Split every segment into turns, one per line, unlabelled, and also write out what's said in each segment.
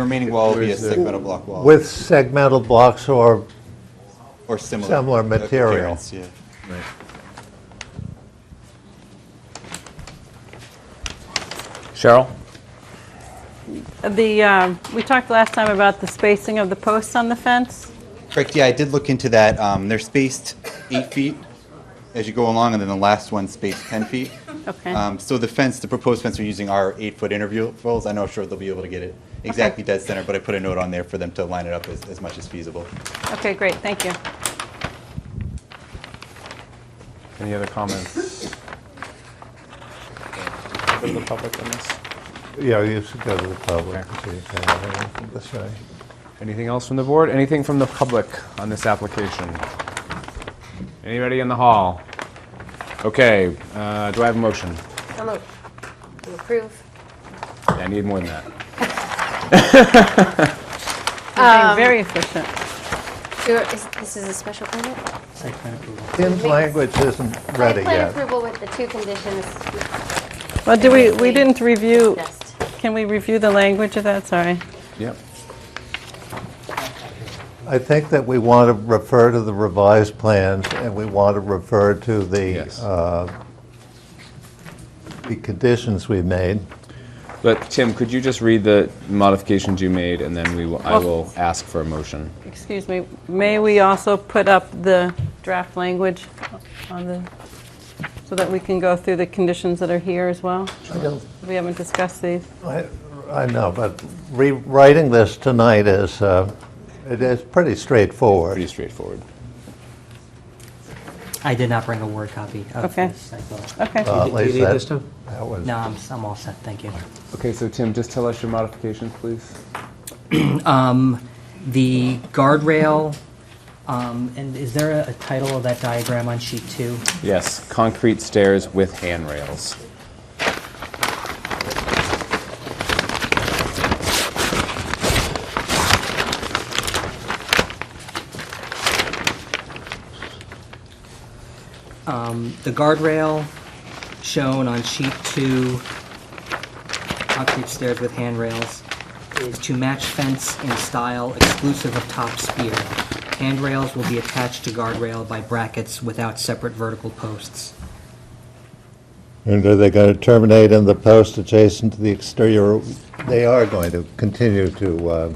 Remaining wall will be a
Where's the-
segmental block wall
with segmental blocks or,
or similar.
similar material.
appearance, yeah.
Cheryl?
The, um, we talked last time about the spacing of the posts on the fence.
Correct, yeah, I did look into that. Um, They're spaced eight feet as you go along, and then the last one spaced 10 feet.
Okay.
Um, So the fence, the proposed fence we're using are eight-foot intervals. I know, sure, they'll be able to get it exactly dead center, but I put a note on there for them to line it up as, as much as feasible.
Okay, great, thank you.
Any other comments? Go to the public on this.
yeah, you should go to the public. That's right.
Anything else from the board? Anything from the public on this application? Anybody in the hall? Okay, uh, do I have a motion?
So moved. To approve.
I need more than that.
You're being very efficient.
You're- is- This is a special permit?
Tim's language isn't ready
Site plan
yet.
approval with the two conditions
Well, do we, we didn't review,
discussed.
can we review the language of that? Sorry.
Yep.
I think that we want to refer to the revised plans, and we want to refer to the,
Yes.
uh, the conditions we made.
But Tim, could you just read the modifications you made, and then we will, I
Well-
will ask for a motion?
Excuse me, may we also put up the draft language on the, so that we can go through the conditions that are here as well?
I don't
We haven't discussed these.
I I know, but rewriting this tonight is, uh, it is pretty
Pretty
straightforward.
straightforward.
I did not bring a Word copy of
Okay.
this. I thought-
Uh,
Okay.
at
Do you
least
need
that-
this time?
That was,
No, I'm, I'm all set, thank you.
Okay, so Tim, just tell us your modifications, please.
Um, The guardrail, um, and is there a- a title of that diagram on sheet two?
Yes, concrete stairs with handrails.
The guardrail shown on sheet two, concrete stairs with handrails, is to match fence in style exclusive of top spear. Handrails will be attached to guardrail by brackets without separate vertical posts.
and are they going to terminate in the post adjacent to the exterior? They are going to continue to uh,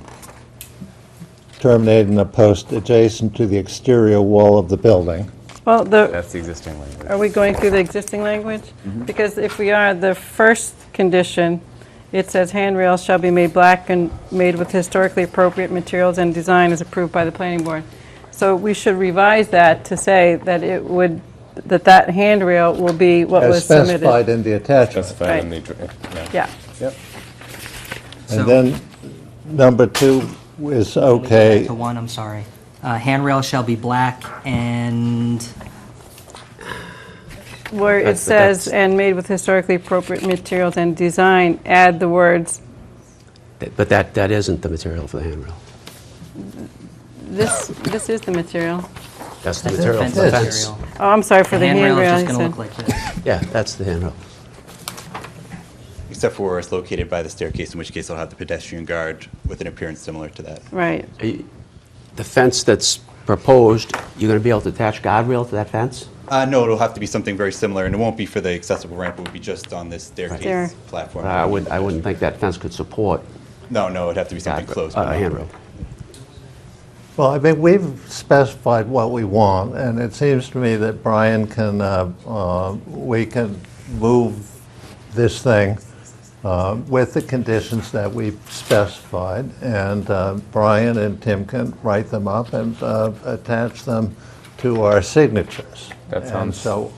terminate in the post adjacent to the exterior wall of the building.
Well, the,
That's the existing language.
Are we going through the existing language? Because if we are, the first condition, it says handrails shall be made black and made with historically appropriate materials and design as approved by the planning board. So we should revise that to say that it would, that that handrail will be what
As
was submitted.
specified in the attachment.
Specified in the, dr- yeah.
Yeah,
Yep.
And then number two is okay.
To one, I'm sorry. Uh, handrail shall be black and
where it
That's the-
says, and made with historically appropriate materials and design, add the words,
That- But that, that isn't the material for the handrail.
this, this is the material.
That's
that's the
the material
fence
for the fence.
material.
Oh, I'm sorry for
The
the handrail.
handrail is
I
just gonna
said.
look like this.
Yeah, that's the handrail.
Except for where it's located by the staircase, in which case I'll have the pedestrian guard with an appearance similar to that.
Right.
The fence that's proposed, you're going to be able to attach guardrail to that fence?
Uh, no, it'll have to be something very similar, and it won't be for the accessible ramp, it would be just on this
There.
staircase platform.
I wouldn't, I wouldn't think that fence could support
No, no, it'd have to be something
guardrail-
close. but
uh,
not-
handrail.
Well, I mean, we've specified what we want, and it seems to me that Brian can, uh, uh, we can move this thing uh, with the conditions that we've specified, and uh, Brian and Tim can write them up and uh, attach them to our signatures.
That
And
sounds
so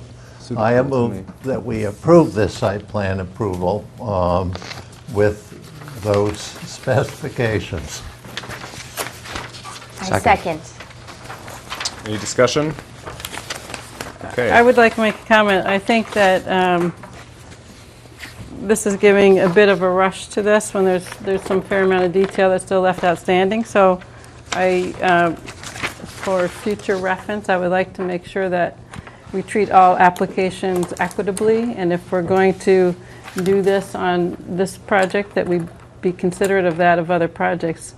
I
suitable to me.
move that we approve this site plan approval um, with those specifications.
I second.
Any discussion? Okay.
I would like to make a comment. I think that um, this is giving a bit of a rush to this when there's, there's some fair amount of detail that's still left outstanding. So I, um, for future reference, I would like to make sure that we treat all applications equitably. And if we're going to do this on this project, that we be considerate of that of other projects.